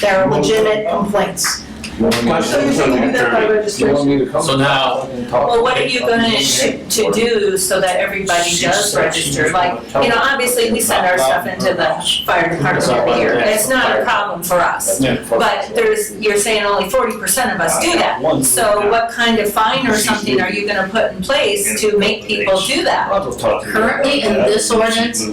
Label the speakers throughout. Speaker 1: they're legitimate complaints.
Speaker 2: So you're saying you do that by registration?
Speaker 3: me to come?
Speaker 4: So now-
Speaker 5: Well, what are you gonna sh- to do so that everybody does register? Like, you know, obviously, we send our stuff into the fire department every year. It's not a problem for us. But there's, you're saying only forty percent of us do that. So what kind of fine or something are you gonna put in place to make people do that?
Speaker 6: Currently in this ordinance,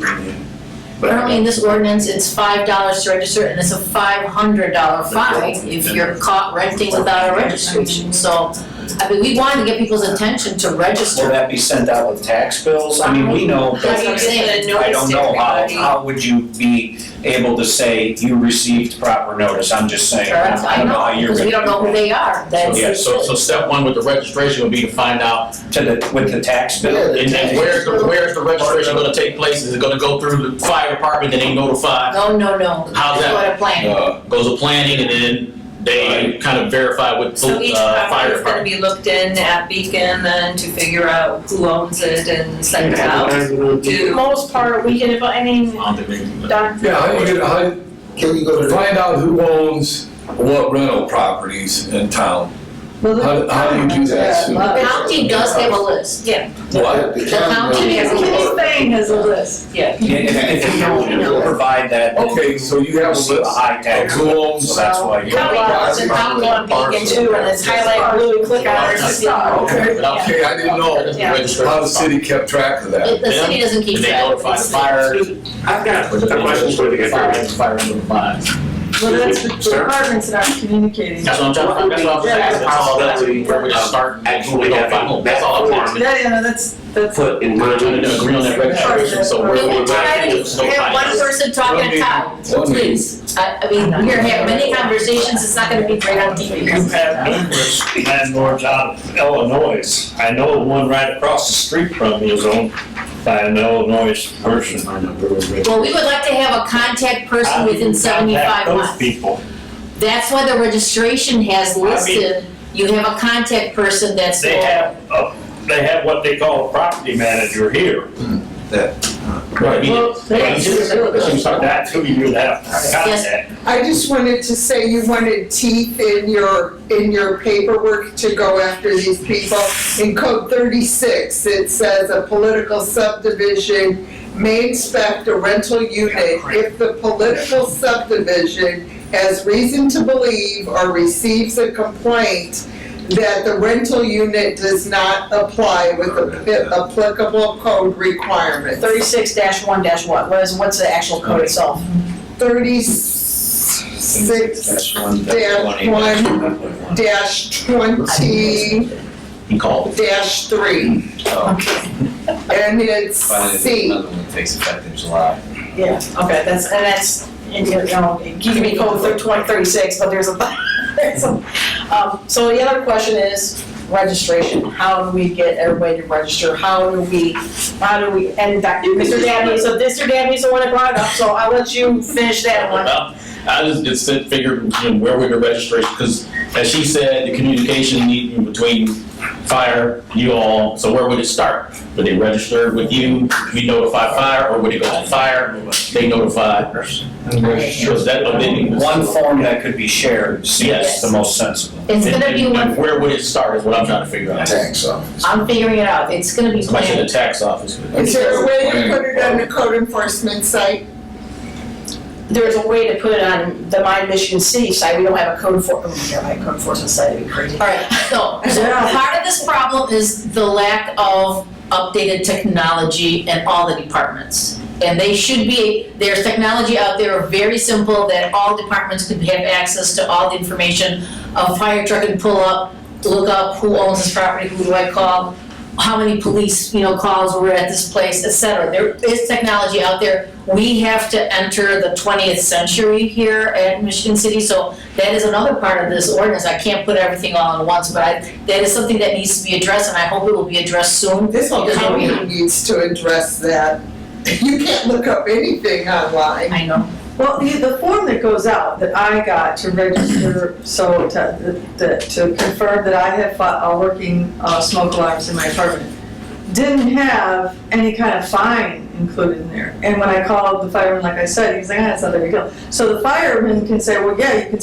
Speaker 6: currently in this ordinance, it's five dollars to register and it's a five hundred dollar fine if you're caught renting without a registration. So, I mean, we wanted to get people's attention to
Speaker 7: Will
Speaker 6: register.
Speaker 7: that be sent out with tax bills? I mean, we know,
Speaker 5: How do you get the
Speaker 7: I
Speaker 5: notice
Speaker 7: don't
Speaker 5: to
Speaker 7: know, how,
Speaker 5: everybody?
Speaker 7: how would you be able to say you received proper notice? I'm just saying, I
Speaker 6: I
Speaker 7: don't know how
Speaker 6: know,
Speaker 7: you're.
Speaker 6: because we don't know who they are. That's
Speaker 7: Yeah,
Speaker 4: So, so step one with the registration would be to find out,
Speaker 7: To the, with the tax bill?
Speaker 4: and then where's the, where's the registration gonna take place? Is it gonna go through the fire department that ain't notified?
Speaker 6: No, no, no.
Speaker 4: How's
Speaker 6: That's
Speaker 4: that? Uh,
Speaker 6: What a plan.
Speaker 4: Goes to planning and then they kind of verify with the
Speaker 5: So each
Speaker 4: uh,
Speaker 5: property
Speaker 4: fire
Speaker 5: is gonna
Speaker 4: department.
Speaker 5: be looked in at Beacon then to figure out who owns it and send it out
Speaker 1: For the
Speaker 5: to.
Speaker 1: most part, we can, I mean,
Speaker 4: I don't think Um, they-
Speaker 1: Don,
Speaker 3: Yeah, how you get, how, you-
Speaker 2: Can we go to the?
Speaker 3: find out who owns what rental properties in town. How, how do you do that? Sue?
Speaker 6: The county does have a list.
Speaker 3: What?
Speaker 2: The
Speaker 6: county has a
Speaker 1: this thing has a list.
Speaker 5: Yeah.
Speaker 7: Yeah, If, if you don't provide that, then
Speaker 3: Okay, so you have a
Speaker 7: it's a
Speaker 3: list
Speaker 7: high
Speaker 3: of
Speaker 7: tax,
Speaker 3: who
Speaker 7: so
Speaker 3: owns,
Speaker 7: that's why you.
Speaker 1: County does, and county on Beacon too, and it's highlighted blue, click on it, it's a star.
Speaker 3: okay,
Speaker 4: Yeah.
Speaker 3: okay, I didn't know
Speaker 4: That's the registration.
Speaker 3: how the city kept track of that.
Speaker 6: The the city doesn't keep
Speaker 4: And they
Speaker 6: track.
Speaker 4: notify the fire.
Speaker 8: I've got
Speaker 4: Which is-
Speaker 8: a question for the
Speaker 4: Fire,
Speaker 8: attorney.
Speaker 4: fire notified.
Speaker 1: Well, that's the the department's not communicating.
Speaker 4: That's what I'm trying, to that's what I'm
Speaker 1: Yeah,
Speaker 4: asking, that's all, that's where we just start, that's what we
Speaker 8: Actually,
Speaker 4: don't
Speaker 8: having
Speaker 4: find, that's all I'm
Speaker 8: that
Speaker 4: asking.
Speaker 1: Yeah, yeah, no, that's, that's.
Speaker 8: put in
Speaker 4: We're
Speaker 8: mind.
Speaker 4: trying to agree on that registration, so we're,
Speaker 6: Can
Speaker 4: we're,
Speaker 6: we try
Speaker 4: we're,
Speaker 6: to
Speaker 4: so
Speaker 6: have one person talk at a time,
Speaker 3: One meeting.
Speaker 6: please? I, I mean, we're gonna have many conversations, it's not gonna be great on TV.
Speaker 8: You have numerous landlords out of Illinois. I know one right across the street from me is owned by an Illinois person.
Speaker 6: Well, we would like to have a contact person
Speaker 8: How do you
Speaker 6: within
Speaker 8: contact
Speaker 6: seventy-five
Speaker 8: Those
Speaker 6: miles.
Speaker 8: people.
Speaker 6: That's why the registration has listed, you have a contact person that's.
Speaker 8: They have, a- they have what they call a property manager here.
Speaker 1: Well, that's-
Speaker 8: That's who you would have to contact.
Speaker 9: I just wanted to say you wanted teeth in your, in your paperwork to go after these people. In code thirty-six, it says a political subdivision may inspect a rental unit if the political subdivision has reason to believe or receives a complaint that the rental unit does not apply with the applicable code requirements.
Speaker 1: Thirty-six dash one dash what, what is, what's the actual code itself?
Speaker 9: Thirty-six dash one dash twenty
Speaker 4: he called.
Speaker 9: dash three, and it's C.
Speaker 7: takes effect in July.
Speaker 1: Yeah, okay, that's, and that's, and you know, it gives me code thir- twenty thirty-six, but there's a, there's a- um, so the other question is registration. How do we get everybody to register? How do we, how do we, and Dr. Mr. Dabney, so Mr. Dabney's the one that brought it up, so I'll let you finish that one.
Speaker 4: Well, I just, just said- figured, you know, where would the registration, because as she said, the communication need between fire, you all, so where would it start? Would they register with you, we notify fire, or would it go to fire, they notify? Because that, but then.
Speaker 7: One form that could be shared seems
Speaker 4: Yes.
Speaker 7: the most sensible.
Speaker 6: It's
Speaker 4: And-
Speaker 6: gonna be
Speaker 4: and- and
Speaker 6: one,
Speaker 4: Where would it start is what I'm trying to figure out.
Speaker 3: Tax office.
Speaker 6: I'm figuring it out, it's gonna be
Speaker 4: Somebody should the
Speaker 6: planned.
Speaker 4: tax office.
Speaker 9: Is there a way to put it on the code enforcement site?
Speaker 1: There's a way to put it on the My Michigan City site. We don't have a code for, oh, yeah, my code enforcement site, it'd be crazy.
Speaker 6: Alright, so, so part of this problem is the lack of updated technology in all the departments. And they should be, there's technology out there, very simple, that all departments could have access to all the information. A fire truck can pull up, look up who owns this property, who do I call, how many police, you know, calls were at this place, et cetera. There is technology out there. We have to enter the twentieth century here at Michigan City, so that is another part of this ordinance. I can't put everything all at once, but I, that is something that needs to be addressed, and I hope it will be addressed soon.
Speaker 9: This whole county needs to address that. You can't look up anything online.
Speaker 6: I know.
Speaker 1: Well, the, the form that goes out that I got to register, so to, that- to confirm that I have fi- uh, working uh, smoke alarms in my apartment, didn't have any kind of fine included in there. And when I called the fireman, like I said, he's like, ah, it's not that big a deal. So the fireman can say, well, yeah, you can